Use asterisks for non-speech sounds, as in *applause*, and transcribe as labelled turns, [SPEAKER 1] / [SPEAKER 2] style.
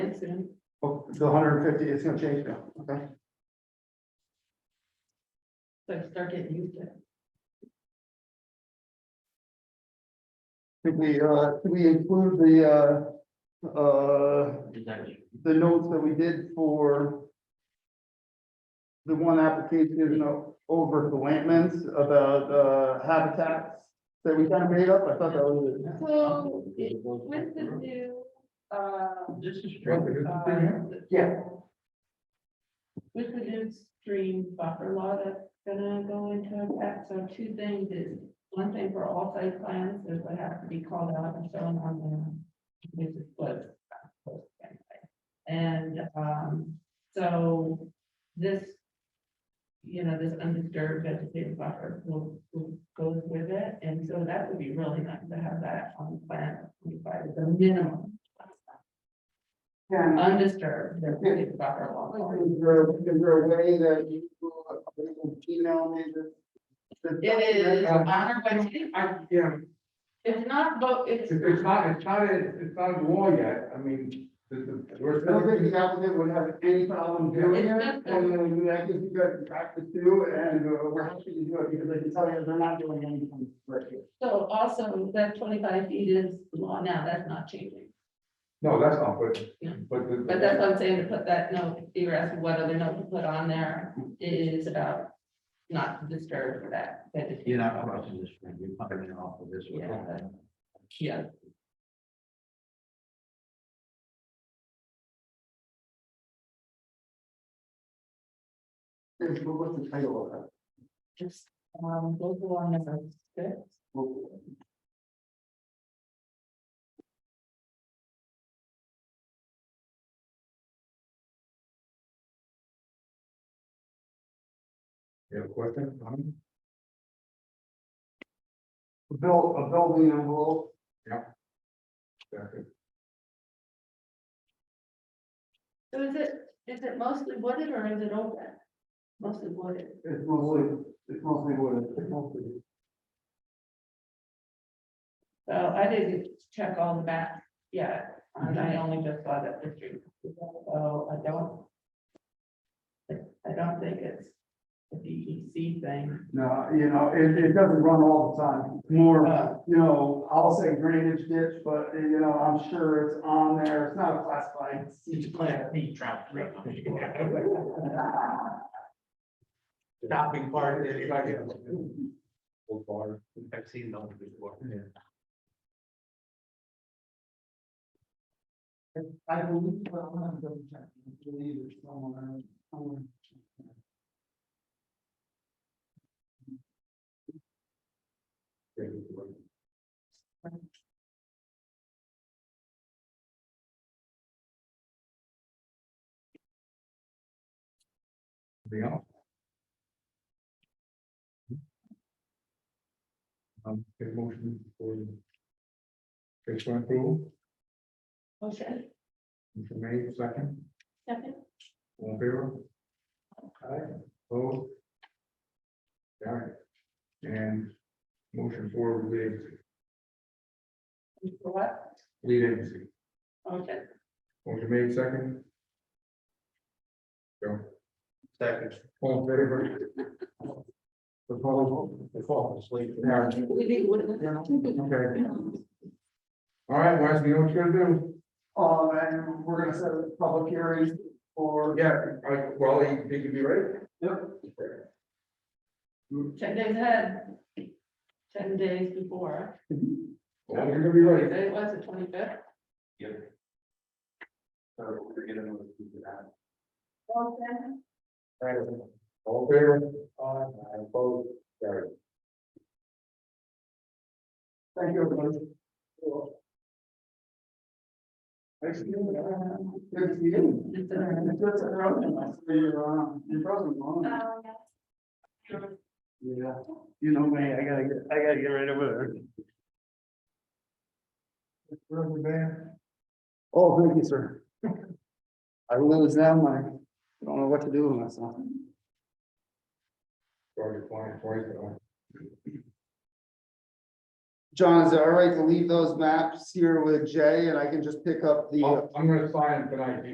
[SPEAKER 1] accident.
[SPEAKER 2] Oh, the hundred and fifty, it's gonna change now, okay?
[SPEAKER 1] So I start getting used to it.
[SPEAKER 2] Did we, uh, did we include the, uh, uh, the notes that we did for the one application o- over the Lampman's about, uh, habitats that we kind of made up? I thought that was. it.
[SPEAKER 1] So it- with the new, uh,
[SPEAKER 3] This is
[SPEAKER 1] uh,
[SPEAKER 2] Yeah.
[SPEAKER 1] with the new stream buffer law that's gonna go into effect, so two things is, one thing for all site plans, is what has to be called out and shown on the, this is what. And, um, so this, you know, this undisturbed vegetative buffer will, will goes with it, and so that would be really nice to have that on the plan, twenty-five, the minimum.
[SPEAKER 2] Yeah.
[SPEAKER 1] Undisturbed, vegetative buffer law.
[SPEAKER 2] Is there, is there a way that you will email me this? this
[SPEAKER 1] It is on
[SPEAKER 2] document?
[SPEAKER 1] our website. Our-
[SPEAKER 3] Yeah,
[SPEAKER 1] It's not, but it's,
[SPEAKER 3] it's, it's not, it's not, a- it's not a law yet, I mean, the, the,
[SPEAKER 2] I don't
[SPEAKER 3] we're.
[SPEAKER 2] think the applicant would have any problem doing it, and I think you guys practice too, and uh, we're happy to do it, because I can tell you, they're not doing anything right here.
[SPEAKER 1] so also that twenty-five feet is the law now, that's not changing.
[SPEAKER 3] No, that's not, but,
[SPEAKER 1] Yeah.
[SPEAKER 3] but the.
[SPEAKER 1] But that's what I'm saying, to put that note, you were asking what other note to put on there, it is about not to disturb that vegetation.
[SPEAKER 4] You're not crossing this stream, you're coming in off of this
[SPEAKER 1] Yeah.
[SPEAKER 4] one.
[SPEAKER 1] Yeah.
[SPEAKER 2] Yes, but what's the title of that?
[SPEAKER 1] Just, um, go along number six.
[SPEAKER 3] You have a question? Um,
[SPEAKER 2] A Build, a building envelope,
[SPEAKER 3] second.
[SPEAKER 1] So is it, is it mostly wooded or is it open? Mostly wooded.
[SPEAKER 2] it's mostly, it's mostly wood, it's mostly.
[SPEAKER 1] So I didn't check all the maps yet, and I only just saw that picture. So I don't. I don't think it's a DEC thing.
[SPEAKER 2] No, you know, it, it doesn't run all the time, It's more,
[SPEAKER 1] Uh,
[SPEAKER 2] you know, I'll say drainage ditch, but, uh, you know, I'm sure it's on there, it's not a classified.
[SPEAKER 4] It's class B trout.
[SPEAKER 3] Stopping part, anybody else? Old bar.
[SPEAKER 4] I've seen those before.
[SPEAKER 2] *laughs* I believe, well, I'm gonna double check, I believe it's somewhere, somewhere.
[SPEAKER 3] Um, Be off. Um, get a motion for. Case for approval,
[SPEAKER 1] Motion,
[SPEAKER 3] motion made, second,
[SPEAKER 1] second,
[SPEAKER 3] all in favor? Aye, opposed? Got it. And motion for lead agency,
[SPEAKER 1] for what?
[SPEAKER 3] lead agency,
[SPEAKER 1] Okay,
[SPEAKER 3] motion made, second. Go.
[SPEAKER 4] Second.
[SPEAKER 3] All in favor? The follow, the follow, sleep. Okay,
[SPEAKER 1] we need wood.
[SPEAKER 3] all right, Wes, you know what you're gonna do?
[SPEAKER 2] Um, and we're gonna set a public hearing for.
[SPEAKER 3] Yeah, I, well, he, he can be ready.
[SPEAKER 2] Yep.
[SPEAKER 1] Ten days ahead. Ten days before.
[SPEAKER 3] Well, you're gonna be ready.
[SPEAKER 1] It was the twenty-fifth.
[SPEAKER 4] So we're gonna know who did that.
[SPEAKER 3] All in favor? Aye. I oppose, carry.
[SPEAKER 2] Thank you, everybody. Thanks, Good to see you.
[SPEAKER 1] It's a-
[SPEAKER 2] It's good to have you. I see you're, um, you're frozen, huh? Yeah, you know me, I gotta get, I gotta get right over there.
[SPEAKER 3] Reverend Van,
[SPEAKER 2] Oh, thank you, sir. I lose them, I don't know what to do with myself.
[SPEAKER 3] sorry, twenty, twenty, uh,
[SPEAKER 2] John, is it all right to leave those maps here with Jay and I can just pick up the? uh,
[SPEAKER 3] I'll- I'm gonna sign it tonight,